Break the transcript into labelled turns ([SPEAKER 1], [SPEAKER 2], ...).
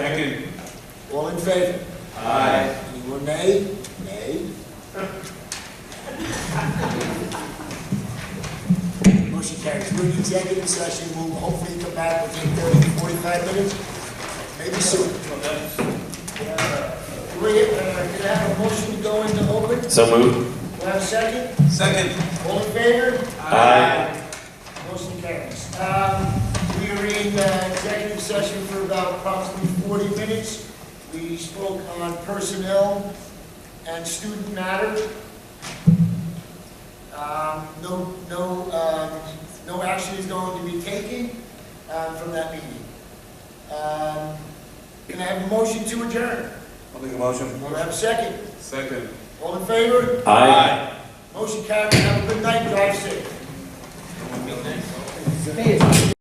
[SPEAKER 1] Second.
[SPEAKER 2] All in favor?
[SPEAKER 1] Aye.
[SPEAKER 2] Anyone nay? Nay. Motion carries. We're in executive session. We'll hopefully come back within 30 to 45 minutes, maybe soon. Uh, We're here, uh, Can I have a motion to go into open? Do
[SPEAKER 3] So moved.
[SPEAKER 2] I have a second?
[SPEAKER 1] Second.
[SPEAKER 2] All in favor?
[SPEAKER 3] Aye.
[SPEAKER 2] Motion carries. Um, We are in uh, executive session for about approximately 40 minutes. We spoke on personnel and student matters. Um, No, no, uh, no action is going to be taken uh, from that meeting. Um, Can I have a motion to adjourn?
[SPEAKER 1] I'll make a motion.
[SPEAKER 2] Want to have a second?
[SPEAKER 1] Second.
[SPEAKER 2] All in favor?
[SPEAKER 3] Aye.
[SPEAKER 2] Motion carries. Have a good night. Drive safe.